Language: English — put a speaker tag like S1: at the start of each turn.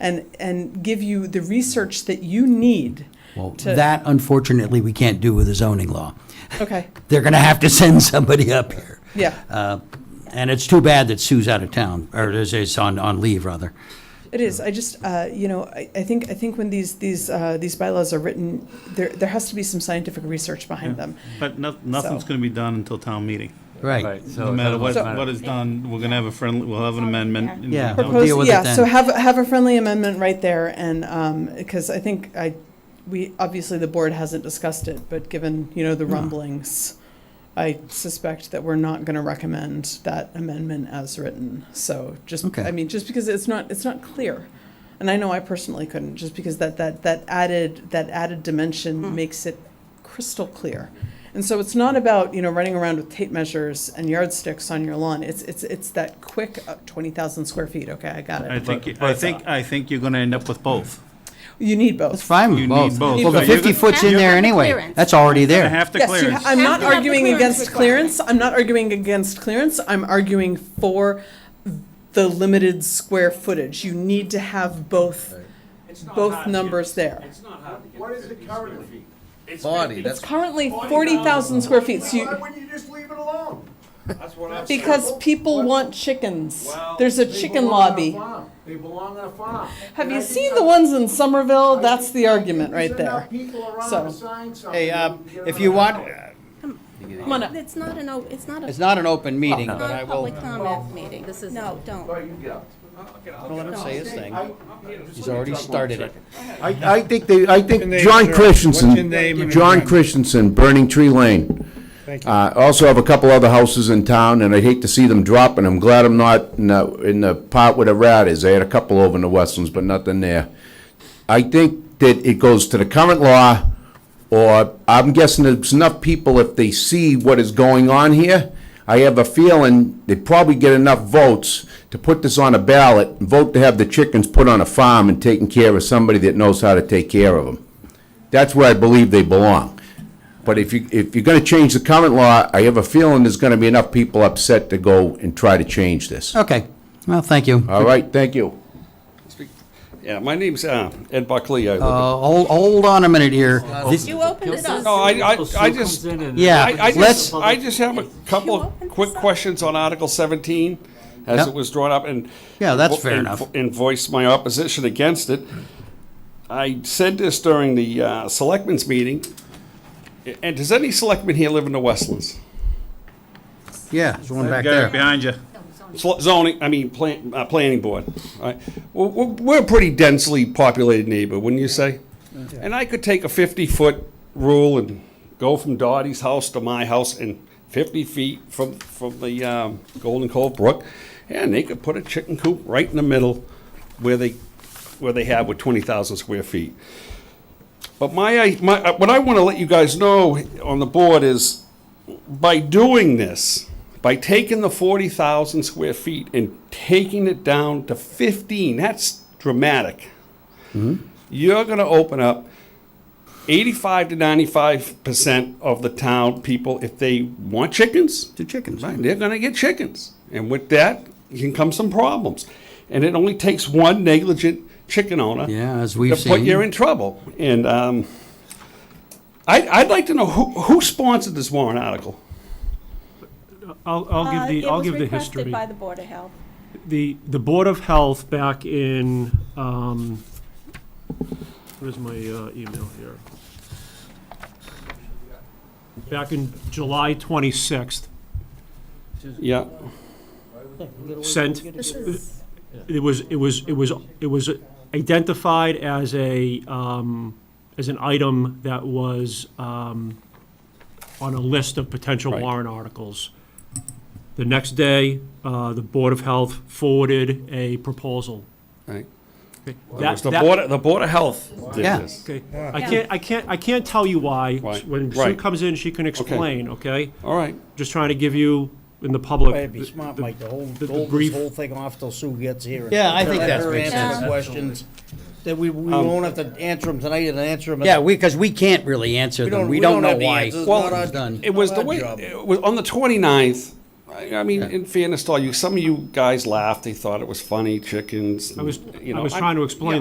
S1: and, and give you the research that you need.
S2: Well,
S1: to-
S2: that unfortunately, we can't do with the zoning law.
S1: Okay,
S2: They're going to have to send somebody up here.
S1: yeah,
S2: Uh, And it's too bad that Sue's out of town, or is- is on, on leave, rather.
S1: it is. I just, uh, you know, I, I think, I think when these, these, uh, these bylaws are written, there, there has to be some scientific research behind
S3: Yeah.
S1: them.
S3: But no- nothing's
S1: So-
S3: going to be done until town meeting.
S2: Right.
S4: Right, so. it
S3: No matter
S4: doesn't
S3: what,
S4: matter.
S3: what is done, we're going to have a friendly, we'll have an amendment. and
S2: Yeah.
S3: we'll
S2: Propose-
S3: deal
S2: with
S1: Propose,
S2: it
S1: yeah,
S2: then.
S1: so have, have a friendly amendment right there and, um 'cause because I think I, we, obviously the board hasn't discussed it, but given, you know,
S2: Mm.
S1: the rumblings, I suspect that we're not gonna recommend that amendment as written, so just,
S2: Okay.
S1: I mean, just because it's not, it's not clear. And I know I personally couldn't, just because that, that, that added, that added
S2: Mm.
S1: dimension makes it crystal clear. And so it's not about, you know, running around with tape measures and yardsticks on your lawn. It's, it's, it's that quick uh, 20,000 square feet. Okay, I got it.
S3: I think, I think, I think you're going to end up with both.
S1: you need both.
S2: That's fine.
S3: You
S2: Well,
S3: need both.
S2: Well, the
S3: So you're
S2: 50
S3: gonna-
S2: foot's in
S4: Have to
S2: there
S4: have the
S2: anyway.
S4: clearance.
S2: That's already
S3: Gonna
S2: there.
S3: have to
S1: Yes, you
S3: clearance.
S1: ha- I'm
S4: Have
S1: not
S4: to have the
S1: arguing
S4: clearance
S1: against
S4: requirement.
S1: clearance. I'm not arguing against clearance. I'm arguing for the limited square footage. You need to have both, both numbers there.
S5: What is it currently?
S6: Body,
S1: It's
S6: that's,
S1: currently 40,000 square feet, so
S5: Why
S1: you,
S5: wouldn't you just leave it alone?
S7: That's what I'm saying.
S1: because people want chickens. There's a
S5: They
S1: chicken
S5: belong on a
S1: lobby.
S5: farm. They belong on a farm.
S1: Have
S5: And
S1: you
S5: I think
S1: seen
S5: I-
S1: the ones in Somerville?
S5: I
S1: That's
S5: think
S1: the argument
S5: there's
S1: right
S5: enough
S1: there.
S5: people around
S1: So,
S5: to sign something
S2: Hey, uh,
S5: and get
S2: if
S5: another
S2: you want,
S5: hour.
S1: Come on up.
S8: It's not an, o- it's not a.
S2: it's not an open meeting,
S8: Not
S2: but I
S8: a
S2: will,
S8: public comment meeting. This is. No, don't.
S5: Well, you go.
S2: I'll let him say his thing.
S5: I-
S2: He's already started it.
S6: I, I think they, I
S7: your
S6: think
S7: name,
S6: John
S7: sir?
S6: Christensen.
S7: What's your name and
S6: John
S7: address?
S6: Christensen, Burning Tree Lane.
S7: Thank you.
S6: Uh, also have a couple other houses in town, and I'd hate to see them drop, and I'm glad I'm not in the, in the pot where the rat is. They had a couple over in the Westlands, but nothing there. I think that it goes to the current law, or I'm guessing there's enough people, if they see what is going on here, I have a feeling they probably get enough votes to put this on a ballot, and vote to have the chickens put on a farm and taken care of somebody that knows how to take care of them. That's where I believe they belong. But if you, if you're gonna change the current law, I have a feeling there's gonna be enough people upset to go and try to change this.
S2: Okay. Well, thank you.
S6: All right, thank you.
S9: Yeah, my name's uh, Ed Buckley. I live
S2: Uh, Hold, hold on a minute here. This-
S8: You opened it
S9: at- no,
S8: up.
S9: I, I, I just,
S2: Yeah,
S9: I, I
S2: let's-
S9: just, I just have a couple
S8: Can you
S9: of
S8: open
S9: quick
S8: this up?
S9: questions on Article 17 as
S2: Yep.
S9: it was drawn up and.
S2: Yeah, that's fair
S9: and-
S2: enough.
S9: And voiced my opposition against it. I said this during the uh, selectmen's meeting. And does any selectman here live in the Westlands?
S2: Yeah, there's one
S3: Guy
S2: back
S3: right
S2: there.
S3: behind you.
S9: Sl- Zoning, I mean, plan, uh, planning board. All right. Well, We're, we're a pretty densely populated neighbor, wouldn't you say? And I could take a fifty-foot rule and go from Dottie's house to my house and fifty feet from, from the, um, Golden Cove Brook. And they could put a chicken coop right in the middle where they, where they have with twenty thousand square feet. But my, my, uh, what I want to let you guys know on the board is, by doing this, by taking the forty thousand square feet and taking it down to fifteen, that's dramatic. You're going to open up eighty-five to ninety-five percent of the town people if they want chickens.
S2: Two chickens.
S9: Right, they're gonna get chickens, and with that can come some problems. And it only takes one negligent chicken owner.
S2: Yeah, as we've
S9: To put you
S2: seen.
S9: in trouble, and, um, I, I'd like to know who, who sponsored this warrant article?
S10: I'll, I'll
S8: Uh,
S10: give the,
S8: it
S10: I'll
S8: was
S10: give the
S8: requested
S10: history.
S8: By the Board of Health.
S10: The, the Board of Health back in, um, where's my uh, email here? Back in July 26th,
S9: Yeah,
S10: sent,
S8: This is,
S10: it was, it was, it was, it was identified as a, um, as an item that was, um, on a list of potential
S9: Right.
S10: warrant articles. The next day, uh, the Board of Health forwarded a proposal.
S9: right. It
S10: That-
S9: was the
S10: that-
S9: Board, of- the Board of Health did
S2: Yeah.
S9: this.
S10: Okay, I can't, I can't, I can't tell you why.
S9: Why?
S10: When Sue
S9: Right.
S10: comes in, she can explain, okay?
S9: All right,
S10: Just trying to give you, in the public.
S7: It'd be smart,
S10: the-
S7: Mike, to hold,
S10: the- the
S7: hold this
S10: brief-
S7: whole thing off till Sue gets here. and
S2: Yeah, I think
S7: let
S2: that
S7: her
S2: makes Um,
S7: answer the
S8: sense.
S7: Questions, that we, we won't have to answer them tonight and answer them.
S2: Yeah, we, because we can't really answer them. We don't know
S7: have the
S2: why.
S7: answers,
S9: Well,
S7: not our-
S2: done.
S9: it was
S7: not
S9: the
S7: our
S9: way,
S7: job.
S9: it was on the 29th. I, I mean, in fairness to all you, some of you guys laughed. They thought it was funny, chickens.
S10: I was,
S9: you
S10: I
S9: know,
S10: was trying to explain